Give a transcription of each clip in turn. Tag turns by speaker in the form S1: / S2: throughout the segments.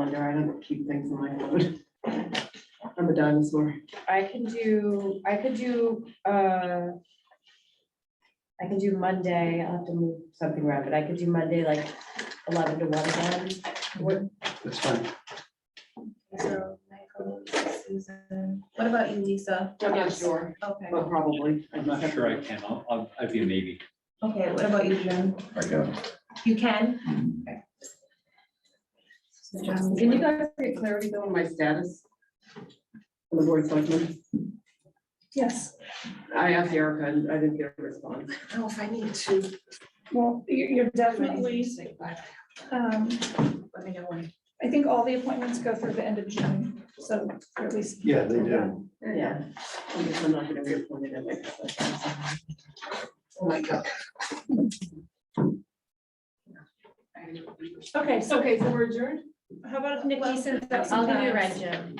S1: I don't keep things in my phone. I'm a dinosaur.
S2: I can do, I could do, uh. I can do Monday, I'll have to move something around, but I could do Monday like eleven to one again. What,
S3: That's fine.
S4: So Michael, Susan, what about you, Lisa?
S1: I'm not sure,
S4: Okay,
S1: but probably.
S3: I'm not sure I can. I'll, I'll, I'd be a maybe.
S4: okay, what about you, Jim?
S5: I got
S4: You can? Um,
S1: Can you guys get clarity though on my status? On the board selection?
S4: Yes.
S1: I asked Erica and I didn't get a response.
S4: Oh, if I need to.
S6: Well, you're, you're definitely, um,
S4: Let me know when.
S6: I think all the appointments go through the end of June, so you're at least.
S5: Yeah, they do.
S1: Yeah. I guess I'm not gonna be appointed in like that.
S4: Oh, my God.
S6: Okay, so,
S1: Okay, so we're adjourned?
S6: how about Nikki sends out
S2: I'll
S6: some
S2: give you a red
S6: times?
S2: Jim.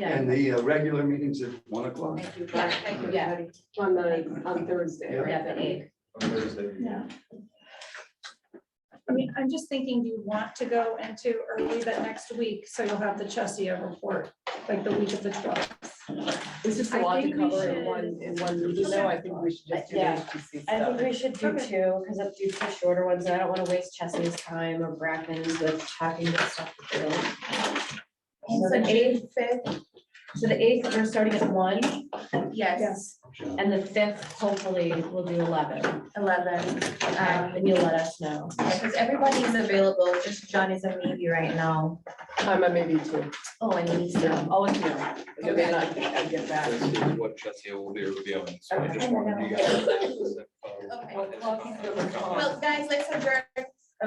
S2: Yeah,
S5: And the uh, regular meetings at one o'clock.
S2: thank you.
S4: Yeah, thank you.
S2: Yeah,
S1: On the, on Thursday, right?
S2: yeah, the egg.
S6: Yeah. I mean, I'm just thinking, do you want to go into early that next week, so you'll have the Chesia report, like the week of the twelfth?
S1: It's just a
S2: I
S1: lot to
S2: think we
S1: cover in
S2: should-
S1: one, in one meeting, though, I think we should just do the
S2: Yeah.
S1: HPC
S2: I think
S1: stuff.
S2: we should do
S6: Okay.
S2: two, because I'll do two shorter ones, and I don't want to waste Chesney's time or Bracken's with talking this stuff. through. So the eighth, fifth, so the eighth, we're starting at one,
S4: Yes,
S2: and the fifth, hopefully, we'll do eleven.
S4: eleven.
S2: Um, and you'll let us know.
S4: Because everybody's available, just John is a maybe right now.
S1: I'm a maybe too.
S4: Oh, and Lisa.
S1: I'll let you know, and then I can, I get back.
S7: This is what Jesse will be reviewing, so I just wanted you guys. to-
S4: Okay.
S7: Well,
S4: Well, guys, let's adjourn.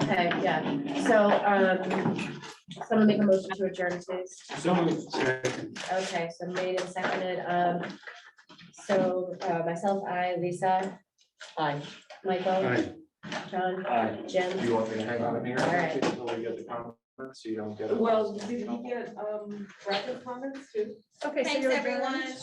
S2: Okay, yeah, so, um, someone make a motion to adjourn, please.
S3: So
S2: Okay, so made and seconded, um, so, uh, myself, I, Lisa,
S1: Bye.
S2: Michael,
S5: Aye.
S2: John,
S3: Aye.
S2: Jim.
S5: Do you want me to hang on in here?
S2: Alright.
S5: Until we get the conference, so you don't get. a-
S1: Well, did we get, um, rapid comments too?
S6: Okay, so
S4: Thanks,
S6: you're adjourned.
S4: everyone.